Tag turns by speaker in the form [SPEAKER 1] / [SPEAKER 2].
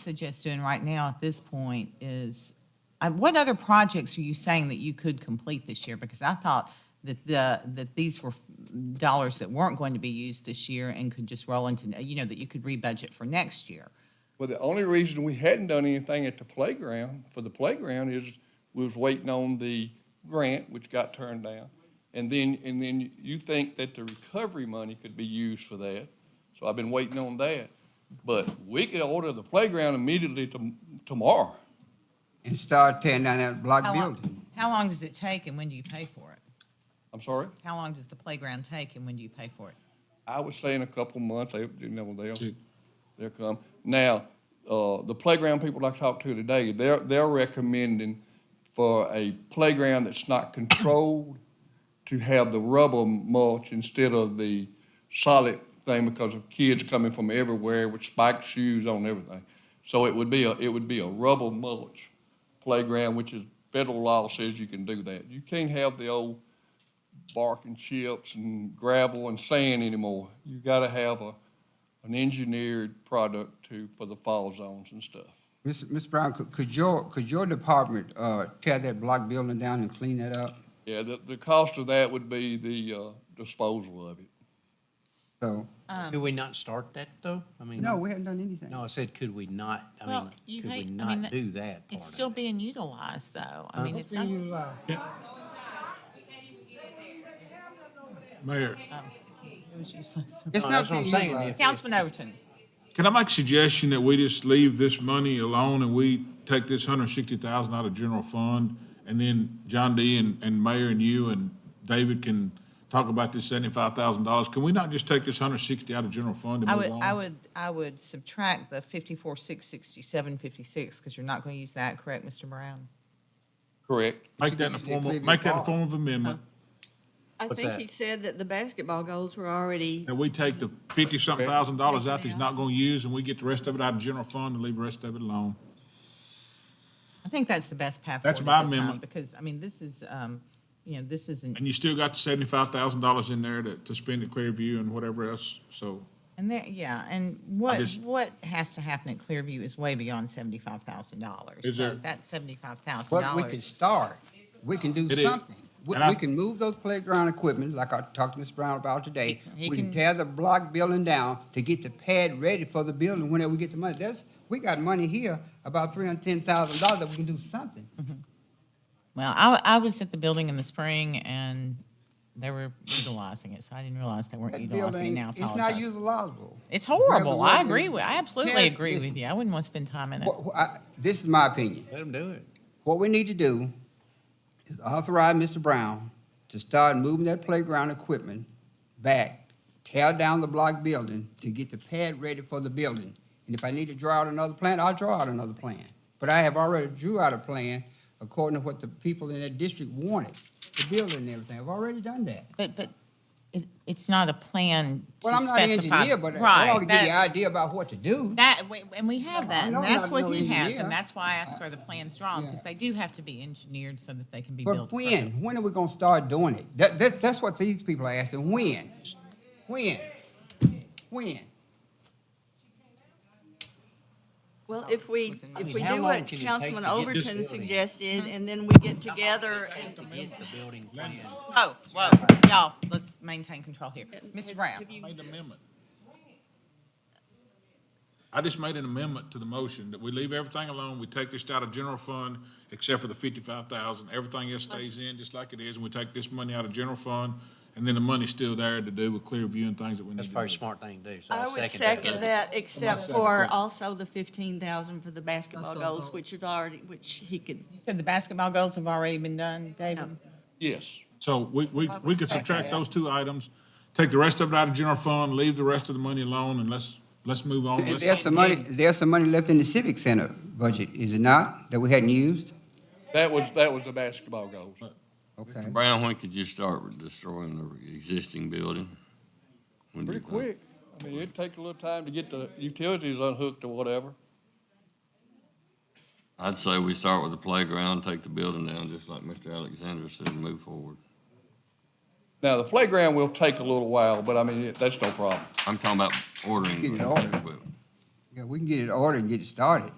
[SPEAKER 1] suggest doing right now at this point is, uh, what other projects are you saying that you could complete this year? Because I thought that the, that these were mm, dollars that weren't going to be used this year and could just roll into, you know, that you could rebudget for next year.
[SPEAKER 2] Well, the only reason we hadn't done anything at the playground, for the playground, is we was waiting on the grant, which got turned down. And then, and then you think that the recovery money could be used for that, so I've been waiting on that. But we could order the playground immediately to, tomorrow.
[SPEAKER 3] and start tearing down that block
[SPEAKER 1] How long-
[SPEAKER 3] building.
[SPEAKER 1] How long does it take and when do you pay for it?
[SPEAKER 2] I'm sorry?
[SPEAKER 1] How long does the playground take and when do you pay for it?
[SPEAKER 2] I would say in a couple months, they, you know, they'll, they'll come. Now, uh, the playground people I talked to today, they're, they're recommending for a playground that's not controlled to have the rubber mulch instead of the solid thing because of kids coming from everywhere with spiked shoes on and everything. So it would be a, it would be a rubber mulch playground, which is, federal law says you can do that. You can't have the old bark and chips and gravel and sand anymore. You gotta have a, an engineered product to, for the fall zones and stuff.
[SPEAKER 3] Ms. Ms. Brown, could, could your, could your department, uh, tear that block building down and clean that up?
[SPEAKER 2] Yeah, the, the cost of that would be the, uh, disposal of it.
[SPEAKER 3] So,
[SPEAKER 4] Could
[SPEAKER 5] Um,
[SPEAKER 4] we not start that, though? I mean.
[SPEAKER 3] no, we haven't done anything.
[SPEAKER 4] No, I said, could we not, I
[SPEAKER 5] Well,
[SPEAKER 4] mean,
[SPEAKER 5] you
[SPEAKER 4] could we
[SPEAKER 5] hate- I mean,
[SPEAKER 4] not
[SPEAKER 5] that-
[SPEAKER 4] do that part
[SPEAKER 5] It's
[SPEAKER 4] of
[SPEAKER 5] still
[SPEAKER 4] it?
[SPEAKER 5] being utilized, though. I mean, it's not,
[SPEAKER 6] Mayor,
[SPEAKER 1] It was useless.
[SPEAKER 3] It's
[SPEAKER 4] No,
[SPEAKER 3] not
[SPEAKER 4] That's what I'm
[SPEAKER 3] being
[SPEAKER 4] saying.
[SPEAKER 3] utilized.
[SPEAKER 4] If-
[SPEAKER 1] Councilman Overton,
[SPEAKER 6] can I make a suggestion that we just leave this money alone and we take this hundred and sixty thousand out of general fund? And then John D. and, and Mayor and you and David can talk about this seventy-five thousand dollars. Can we not just take this hundred and sixty out of general fund
[SPEAKER 1] I
[SPEAKER 6] and
[SPEAKER 1] would,
[SPEAKER 6] move on?
[SPEAKER 1] I would, I would subtract the fifty-four, six, sixty-seven, fifty-six, because you're not going to use that, correct, Mr. Brown?
[SPEAKER 2] Correct.
[SPEAKER 6] Make that in the
[SPEAKER 3] It could
[SPEAKER 6] form
[SPEAKER 3] be
[SPEAKER 6] of, make that in the
[SPEAKER 3] involved.
[SPEAKER 6] form of amendment,
[SPEAKER 7] I
[SPEAKER 4] What's
[SPEAKER 7] think
[SPEAKER 4] that?
[SPEAKER 7] he said that the basketball goals were already,
[SPEAKER 6] that we take the fifty-something thousand dollars out that he's not gonna use, and we get the rest of it out of general fund and leave the rest of it alone.
[SPEAKER 1] I think that's the best path forward.
[SPEAKER 6] That's
[SPEAKER 1] at
[SPEAKER 6] my
[SPEAKER 1] this time,
[SPEAKER 6] amendment.
[SPEAKER 1] Because, I mean, this is, um, you know, this isn't,
[SPEAKER 6] And you still got the seventy-five thousand dollars in there to, to spend at Clearview and whatever else, so.
[SPEAKER 1] and there, yeah, and what,
[SPEAKER 6] just-
[SPEAKER 1] what has to happen at Clearview is way beyond seventy-five thousand dollars.
[SPEAKER 6] Is there-
[SPEAKER 1] So that seventy-five thousand
[SPEAKER 3] But we can
[SPEAKER 1] dollars,
[SPEAKER 3] start, we can do
[SPEAKER 6] It is.
[SPEAKER 3] something. We,
[SPEAKER 6] And I-
[SPEAKER 3] we can move those playground equipment, like I talked to Ms. Brown about today.
[SPEAKER 1] He- he
[SPEAKER 3] We can
[SPEAKER 1] can-
[SPEAKER 3] tear the block building down to get the pad ready for the building whenever we get the money. There's, we got money here, about three hundred and ten thousand dollars that we can do something.
[SPEAKER 1] well, I, I was at the building in the spring and they were utilizing it, so I didn't realize they weren't
[SPEAKER 3] That
[SPEAKER 1] utilizing it
[SPEAKER 3] building,
[SPEAKER 1] now. I
[SPEAKER 3] it's not
[SPEAKER 1] apologize.
[SPEAKER 3] utilizable.
[SPEAKER 1] It's
[SPEAKER 3] Whoever
[SPEAKER 1] horrible. I
[SPEAKER 3] worked
[SPEAKER 1] agree
[SPEAKER 3] it-
[SPEAKER 1] with, I absolutely
[SPEAKER 3] Ted,
[SPEAKER 1] agree
[SPEAKER 3] listen,
[SPEAKER 1] with you. I wouldn't want to spend time in it.
[SPEAKER 3] What- what I- This is my opinion.
[SPEAKER 4] Let them do it.
[SPEAKER 3] What we need to do is authorize Mr. Brown to start moving that playground equipment back, tear down the block building to get the pad ready for the building. And if I need to draw out another plan, I'll draw out another plan. But I have already drew out a plan according to what the people in that district wanted, the building and everything. I've already done that.
[SPEAKER 1] But, but it, it's not a plan
[SPEAKER 3] Well,
[SPEAKER 1] to
[SPEAKER 3] I'm not an
[SPEAKER 1] specify-
[SPEAKER 3] engineer, but I
[SPEAKER 1] Right,
[SPEAKER 3] ought to give you an
[SPEAKER 1] that-
[SPEAKER 3] idea about what to do.
[SPEAKER 1] That, we- and we have that,
[SPEAKER 3] I
[SPEAKER 1] and
[SPEAKER 3] know I'm
[SPEAKER 1] that's
[SPEAKER 3] not
[SPEAKER 1] what
[SPEAKER 3] no
[SPEAKER 1] he has,
[SPEAKER 3] engineer.
[SPEAKER 1] and that's why I ask are the plans drawn, because
[SPEAKER 3] Yeah.
[SPEAKER 1] they do have to be engineered so that they can be built.
[SPEAKER 3] But when? When are we gonna start doing it? That, that, that's what these people are asking. When? When? When?
[SPEAKER 7] well, if we,
[SPEAKER 4] I
[SPEAKER 7] if
[SPEAKER 4] mean,
[SPEAKER 7] we
[SPEAKER 4] how
[SPEAKER 7] do
[SPEAKER 4] long
[SPEAKER 7] what
[SPEAKER 4] can it take
[SPEAKER 7] Councilman
[SPEAKER 4] to get this
[SPEAKER 7] Overton
[SPEAKER 4] building?
[SPEAKER 7] suggested, and then we get together and.
[SPEAKER 4] Get the building plan.
[SPEAKER 1] Whoa, whoa, y'all, let's maintain control here. Mr. Brown,
[SPEAKER 7] Have you-
[SPEAKER 6] Made an amendment. I just made an amendment to the motion that we leave everything alone, we take this out of general fund, except for the fifty-five thousand, everything else stays in just like it is, and we take this money out of general fund, and then the money's still there to do with Clearview and things that we need
[SPEAKER 4] That's
[SPEAKER 6] to do.
[SPEAKER 4] probably a smart thing to do, so I
[SPEAKER 7] I
[SPEAKER 4] second that.
[SPEAKER 7] would second that, except
[SPEAKER 6] second
[SPEAKER 7] for
[SPEAKER 6] that.
[SPEAKER 7] also the fifteen thousand for the basketball goals, which had already, which he could,
[SPEAKER 1] you said the basketball goals have already been done, David?
[SPEAKER 2] Yes.
[SPEAKER 6] So we, we, we could subtract those two items, take the rest of it out of general fund, leave the rest of the money alone, and let's, let's move on. Let's-
[SPEAKER 3] There's some money, there's some money left in the civic center budget, is it not, that we hadn't used?
[SPEAKER 2] That was, that was the basketball goals.
[SPEAKER 3] Okay.
[SPEAKER 8] Brown, when could you start with destroying the existing building? When do
[SPEAKER 2] Pretty
[SPEAKER 8] you
[SPEAKER 2] quick.
[SPEAKER 8] think?
[SPEAKER 2] I mean, it'd take a little time to get the utilities unhooked or whatever.
[SPEAKER 8] I'd say we start with the playground, take the building down, just like Mr. Alexander said, and move forward.
[SPEAKER 2] Now, the playground will take a little while, but I mean, it- that's no problem.
[SPEAKER 8] I'm talking about ordering.
[SPEAKER 3] Get it
[SPEAKER 8] the
[SPEAKER 3] ordered.
[SPEAKER 8] equipment.
[SPEAKER 3] Yeah, we can get it ordered and get it started.